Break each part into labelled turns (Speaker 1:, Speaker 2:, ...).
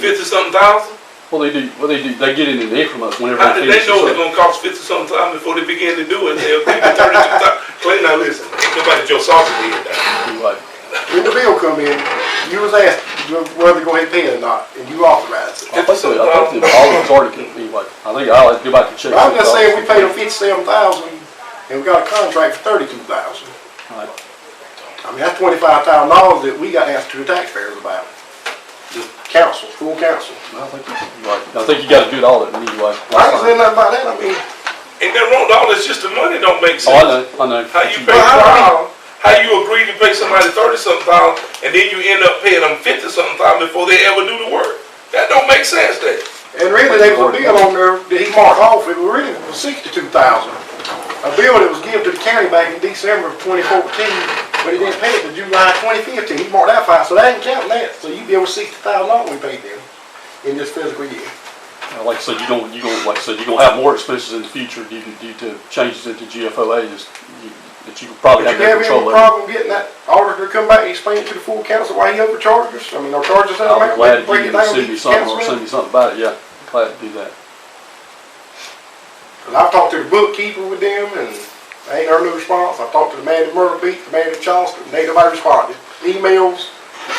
Speaker 1: Fifty something thousand?
Speaker 2: Well, they do. Well, they do. They get it in there from us whenever
Speaker 1: How
Speaker 2: they
Speaker 1: did they
Speaker 2: finish. the
Speaker 1: know it was
Speaker 2: sub.
Speaker 1: gonna cost fifty something thousand before they began to do it? They'll give you thirty-two thousand. Clay, now listen, nobody Joe Salter did that.
Speaker 2: Like,
Speaker 3: When the bill come in, you was asked whether to go ahead and pay it or not, and you authorized it.
Speaker 2: I think they- I think that all of it's already can be like. I think I'll have to go back and check.
Speaker 3: But I'm
Speaker 2: those
Speaker 3: just saying, we
Speaker 2: dollars.
Speaker 3: paid them fifty-seven thousand, and we got a contract for thirty-two thousand.
Speaker 2: Right.
Speaker 3: I mean, that's twenty-five thousand dollars that we got asked to the taxpayers about. The council, full council.
Speaker 2: I think you, like, I think you got to do it all at me. Like,
Speaker 3: I ain't saying nothing about that, I mean,
Speaker 1: Ain't that wrong? All this just the money don't make
Speaker 2: oh, I
Speaker 1: sense.
Speaker 2: know. I know.
Speaker 1: How you pay,
Speaker 3: Well,
Speaker 1: how,
Speaker 3: how-
Speaker 1: how you agree to pay somebody thirty something thousand and then you end up paying them fifty something thousand before they ever do the work? That don't make sense, that.
Speaker 3: and really, there was a bill on there that he marked off, it was really sixty-two thousand. A bill that was given to the county back in December of twenty fourteen, but he didn't pay it till July twenty fifteen, he marked that fine, so that ain't counting that, so you bill was sixty thousand dollars we paid them in this fiscal year.
Speaker 2: Like I said, you don't. You don't. Like I said, you are gonna have more expenses in the future due to, due to changes into GFOA just, you, that you could probably
Speaker 3: But
Speaker 2: have
Speaker 3: you
Speaker 2: no
Speaker 3: have any
Speaker 2: control over.
Speaker 3: problem getting that auditor to come back and explain it to the full council why he overcharged us? I mean, our charges that
Speaker 2: I'll be
Speaker 3: amount,
Speaker 2: glad if
Speaker 3: break
Speaker 2: you
Speaker 3: it
Speaker 2: can
Speaker 3: down to
Speaker 2: send me
Speaker 3: each
Speaker 2: something or send
Speaker 3: councilman?
Speaker 2: me something about it. Yeah, glad to do that.
Speaker 3: Cause I've talked to the bookkeeper with them and they ain't heard no response. I've talked to the man at Myrtle Beach, the man at Charleston, and ain't nobody responded. Emails,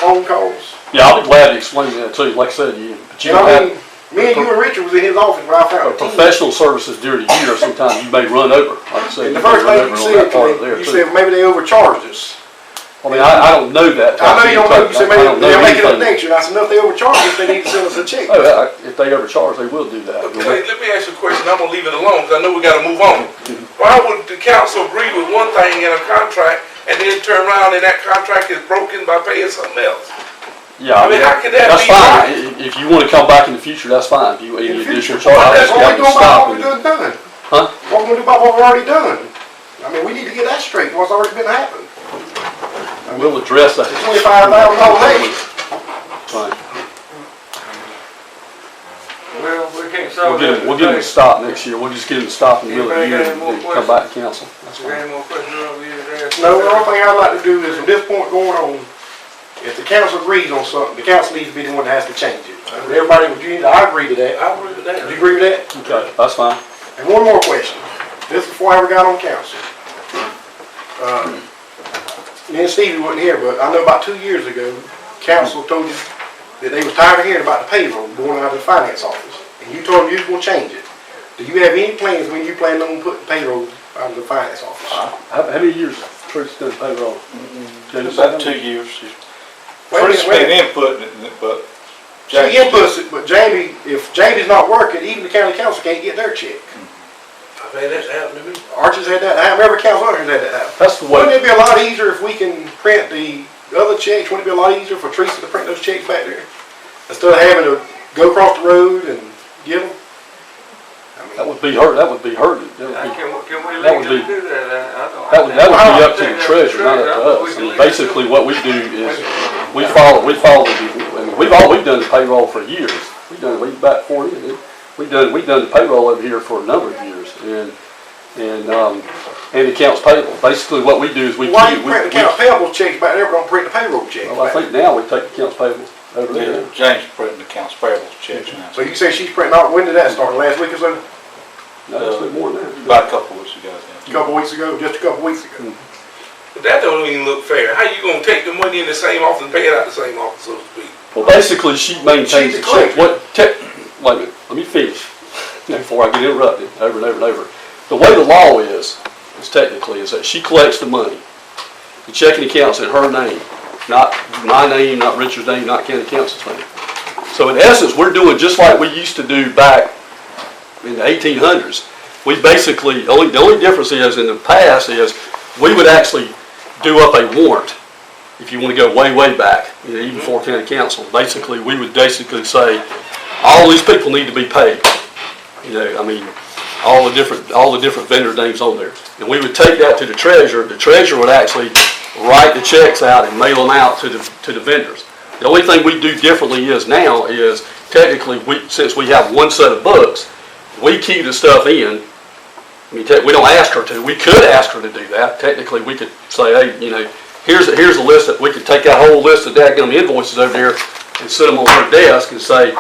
Speaker 3: phone calls.
Speaker 2: Yeah, I'll be glad to explain that too. Like I said, you. But you
Speaker 3: And
Speaker 2: don't
Speaker 3: I
Speaker 2: have-
Speaker 3: mean, me and you and Richard was in his office when I
Speaker 2: But
Speaker 3: found the team.
Speaker 2: professional services during the year, sometimes you may run over, like I said.
Speaker 3: And
Speaker 2: you
Speaker 3: the
Speaker 2: may
Speaker 3: first
Speaker 2: run
Speaker 3: thing you
Speaker 2: over on that
Speaker 3: said
Speaker 2: part
Speaker 3: to
Speaker 2: there,
Speaker 3: me, you
Speaker 2: too.
Speaker 3: said, maybe they overcharged us.
Speaker 2: I mean, I, I don't know that.
Speaker 3: I know you don't know, you
Speaker 2: I
Speaker 3: said maybe
Speaker 2: don't know
Speaker 3: they'll make it up
Speaker 2: anything.
Speaker 3: next year. And I said, no, if they overcharged us, they need to send us a check.
Speaker 2: Oh, yeah, I- if they overcharge, they will do that.
Speaker 1: Okay, let me ask you a question, I'm gonna leave it alone, because I know we gotta move on. Why would the council agree with one thing in a contract, and then turn around and that contract is broken by paying something else?
Speaker 2: Yeah,
Speaker 1: I mean, how could that be
Speaker 2: that's fine.
Speaker 1: right?
Speaker 2: I- i- If you want to come back in the future, that's fine. If you, if
Speaker 3: In
Speaker 2: you
Speaker 3: the
Speaker 2: additional
Speaker 3: future,
Speaker 2: charge, I
Speaker 3: that's
Speaker 2: just got
Speaker 3: what we do
Speaker 2: to
Speaker 3: about
Speaker 2: stop.
Speaker 3: what we
Speaker 2: and-
Speaker 3: done done.
Speaker 2: Huh?
Speaker 3: What we gonna do about what we already done? I mean, we need to get that straight, what's already been happened.
Speaker 2: And we'll address that.
Speaker 3: Twenty-five thousand dollars extra.
Speaker 2: Fine.
Speaker 4: Well, we can't
Speaker 2: We'll
Speaker 4: solve
Speaker 2: get
Speaker 4: that.
Speaker 2: him, we'll get him to stop next year. We'll just get him to stop and we'll,
Speaker 4: Anybody got any more
Speaker 2: come back to council. That's
Speaker 4: We got
Speaker 2: fine.
Speaker 4: any more questions on the
Speaker 3: No, the only thing I'd like to do is from this point going on, if the council agrees on something, the council needs to be the one that has to change it. And Everybody, would you, I agree to that.
Speaker 4: I agree with
Speaker 3: Do you
Speaker 4: that.
Speaker 3: agree with that?
Speaker 2: Okay, that's fine.
Speaker 3: And one more question. This is before I ever got on council. Uh, Me and Stevie wasn't here, but I know about two years ago, council told you that they was tired of hearing about the payroll going out of the finance office. And you told them you was gonna change it. Do you have any plans when you plan on putting payroll out of the finance office?
Speaker 2: How, how many years Truth's done payroll? James,
Speaker 5: About
Speaker 2: how
Speaker 5: two
Speaker 2: many?
Speaker 5: years.
Speaker 3: Wait a minute,
Speaker 5: First
Speaker 3: wait a
Speaker 5: been
Speaker 3: minute.
Speaker 5: inputting it, but
Speaker 3: She inputs it, but Jamie, if Jamie's not working, even the county council can't get their check.
Speaker 1: I mean, that's happened to me.
Speaker 3: Archie's had that happen, every council owner's had that happen.
Speaker 2: That's the
Speaker 3: Wouldn't
Speaker 2: way,
Speaker 3: it be a lot easier if we can print the other checks? Wouldn't it be a lot easier for Teresa to print those checks back there? Instead of having to go across the road and get them? I
Speaker 2: that
Speaker 3: mean,
Speaker 2: would be her, that would be her, that would be
Speaker 4: Can, we- can we
Speaker 2: That would
Speaker 4: legally
Speaker 2: be-
Speaker 4: do that? I- I don't-
Speaker 2: That would, that would be up to
Speaker 4: I
Speaker 2: the
Speaker 4: don't think
Speaker 2: treasurer, not up to
Speaker 4: that's
Speaker 2: us. I
Speaker 4: true.
Speaker 2: mean, basically, what we do is, we follow, we follow, the- I mean, we've, all, we've done the payroll for years. We've done, we've back forty, we've done, we've done the payroll over here for a number of years, and, and, um, and accounts payable. Basically, what we do is we.
Speaker 3: Why
Speaker 2: we-
Speaker 3: you
Speaker 2: we-
Speaker 3: print the accounts payable checks back there, but don't print the payroll checks
Speaker 2: Well, I
Speaker 3: back there?
Speaker 2: think now we take accounts payable over there.
Speaker 5: James printing accounts payable checks now.
Speaker 3: So you say she's printing out, when did that start? Last week or so?
Speaker 2: No, that's been more than that.
Speaker 5: About a couple weeks ago
Speaker 3: A
Speaker 5: then.
Speaker 3: couple weeks ago, just a couple weeks ago.
Speaker 1: But that don't even look fair. How you gonna take the money in the same office and pay it out the same office, so to speak?
Speaker 2: Well, basically, she maintains
Speaker 3: She's
Speaker 2: the
Speaker 3: a
Speaker 2: check.
Speaker 3: clerk.
Speaker 2: What, te- wait a minute, let me finish before I get interrupted over and over and over. The way the law is, is technically, is that she collects the money. The checking account's in her name, not my name, not Richard's name, not county council's name. So in essence, we're doing just like we used to do back in the eighteen hundreds. We basically, only, the only difference is in the past is we would actually do up a warrant. If you want to go way, way back, you know, even before county council, basically, we would basically say, all these people need to be paid. You know, I mean, all the different, all the different vendor names on there. And we would take that to the treasurer, the treasurer would actually write the checks out and mail them out to the, to the vendors. The only thing we do differently is now is technically, we, since we have one set of books, we keep the stuff in. I mean, tech- we don't ask her to, we could ask her to do that, technically, we could say, hey, you know, here's, here's a list that, we could take that whole list of dadgum invoices over there and sit them on her desk and say,